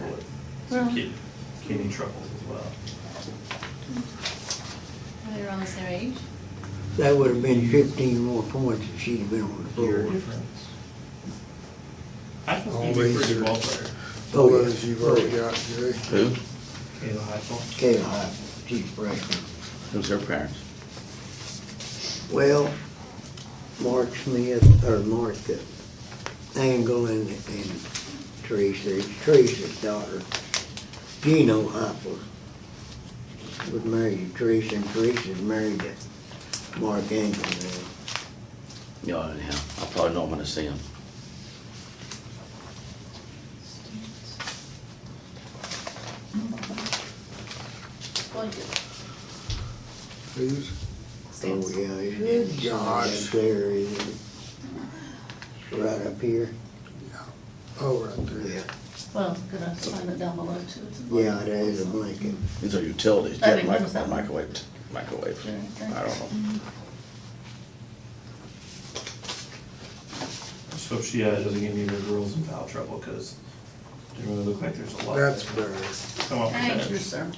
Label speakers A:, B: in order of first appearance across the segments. A: Well-
B: some kid- kidney troubles as well.
C: Are they around the same age?
D: That would have been fifteen more points if she'd been on the
B: Year
D: board.
B: difference. Heifel's gonna be a pretty good ball player.
D: Oh, yeah.
E: Others you've already got, Jerry.
F: Who?
B: Kayla Heifel.
D: Kayla Heifel, she's freshman.
F: Who's her parents?
D: Well, Mark Smith, or Mark uh, Angle and, and Teresa, it's Teresa's daughter, Gino Hopper, was married to Teresa, and Teresa's married to Mark Angle now.
F: Yeah, anyhow, I probably know him when I see him.
C: Well,
E: Who's?
D: Oh,
C: Stands.
D: yeah, it's- it's John's
E: Gosh.
D: there, isn't it? It's Right up here,
E: Oh, right
D: yeah,
E: there.
C: Well, gonna find it down below too. It's in-
D: yeah, there is a blanket.
F: These are utilities,
C: I
F: jet
C: think
F: micro-
C: that's that one.
F: microwave, microwave.
C: Sure, thanks.
F: I don't know.
B: Just hope she uh, doesn't get any of her girls in foul trouble, because they really look like there's a lot.
E: That's
B: that
E: better.
B: Come off the
C: Thank you,
B: bench.
C: sir.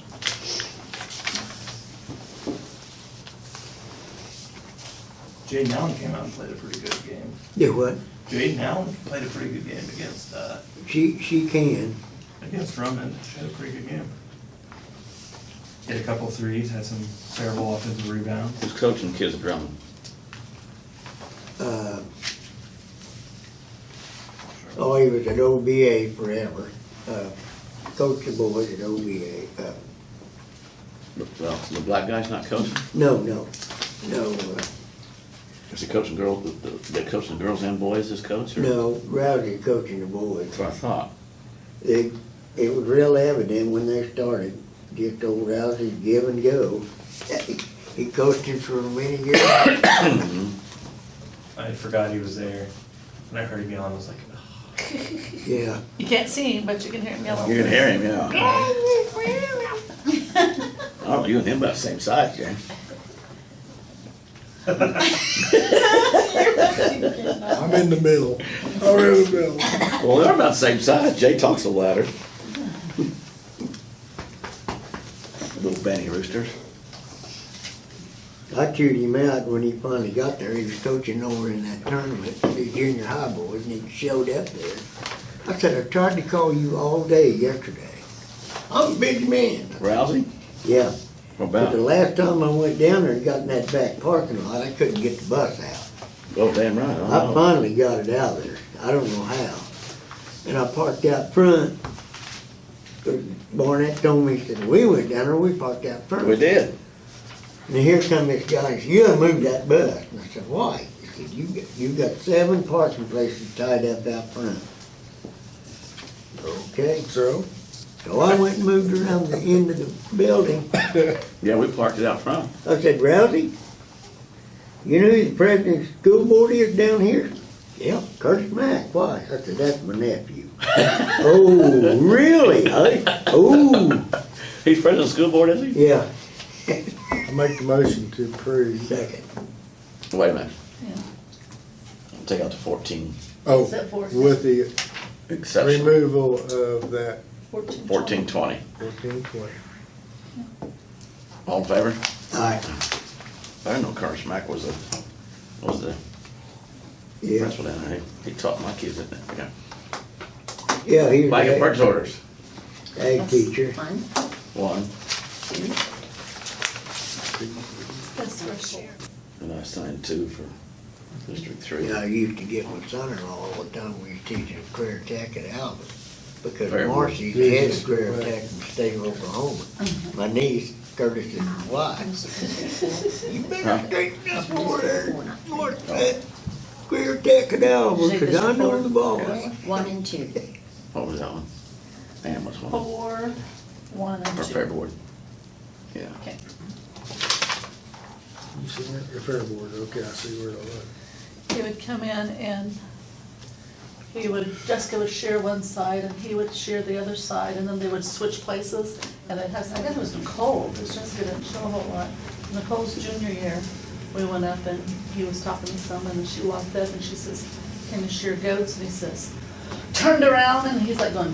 B: Jaden Allen came out and played a pretty good game.
D: Do what?
B: Jaden Allen played a pretty good game against, uh,
D: She, she can,
B: against Drummond. She had a pretty good game. Hit a couple threes, had some terrible offensive rebounds.
F: Who's coaching kids at Drummond?
D: uh, Oh, he was at OBA forever. Uh, Coached the boys at OBA. Uh,
F: Well, the black guy's not coaching?
D: No, no, no, uh,
F: Is he coaching girls, they coaching girls and boys as coach? or-
D: no, Rousey coaching the boys.
F: That's what I thought.
D: It, it was real evident when they started, just old Rousey give and go. He coached him for many years.
B: I forgot he was there. When I heard him yelling, I was like, "Ugh."
D: Yeah,
C: You can't see him, but you can hear him
F: You
C: yelling.
F: can hear him, yeah. Oh, you and him about the same size, Jay.
E: I'm in the middle. I'm in the middle.
F: Well, they're about the same size. Jay talks a louder. Little Benny Roosters.
D: I chewed him out when he finally got there. He was coaching over in that tournament, the junior high boys, and he showed up there. I said, I tried to call you all day yesterday. I'm a big man.
F: Rousey?
D: Yeah.
F: What
D: But the
F: about?
D: last time I went down there and got in that back parking lot, I couldn't get the bus out.
F: Oh, damn right.
D: I
F: I know.
D: finally got it out of there. I don't know how. And I parked out front. Barnett told me, he said, we went down there, we parked out front.
F: We did.
D: And here come this guy, he said, you done moved that bus. And I said, why? He said, you got, you got seven parking places tied up out front. Okay,
E: So,
D: so I went and moved around the end of the building.
F: Yeah, we parked it out front.
D: I said, Rousey, you know who the president of the school board is down here? Yeah, Curtis Mack. Why? I said, that's my nephew. oh, really? I, oh,
F: He's president of the school board, isn't
D: yeah.
E: I make the motion to approve.
D: Second.
F: he? Wait a minute.
C: Yeah.
F: Take out the fourteen
E: Oh,
C: Except for-
E: with the
F: exception.
E: removal of that
C: Fourteen.
F: Fourteen twenty.
E: fourteen twenty.
F: All in favor?
D: Aye.
F: I didn't know Carter Smack was the, was the
D: Yeah,
F: principal down there. He he taught my kids, didn't he? Yeah.
D: yeah, he was
F: Blanket
D: an
F: purchase orders.
D: ag, ag
C: That's
D: teacher.
C: Fine.
F: One,
C: That's the first year.
F: and I signed two for District Three.
D: Yeah, I used to get my son-in-law all the time, we was teaching career tech at Albert. Because
F: Very well.
D: Marcy's head
E: Jesus,
D: of career
E: right.
D: tech from the state of Oklahoma.
G: Uh-huh.
D: My niece, Curtis's wife. You better
F: Huh?
D: straighten this water, water, career tech at Albert, cause I know the boss.
G: One and two.
F: What was that one? Ann was one,
C: Four, one, and
F: or
C: two.
F: Fair Board. Yeah.
C: Okay.
E: You see that? The fair board, okay, I see where it was.
C: He would come in and he would, Jessica would share one side and he would share the other side, and then they would switch places. And it has, I think it was Nicole, because Jessica didn't show a whole lot. Nicole's junior year, we went up and he was talking to someone, and she walked up and she says, can you shear goats? And he says, turned around, and he's like going,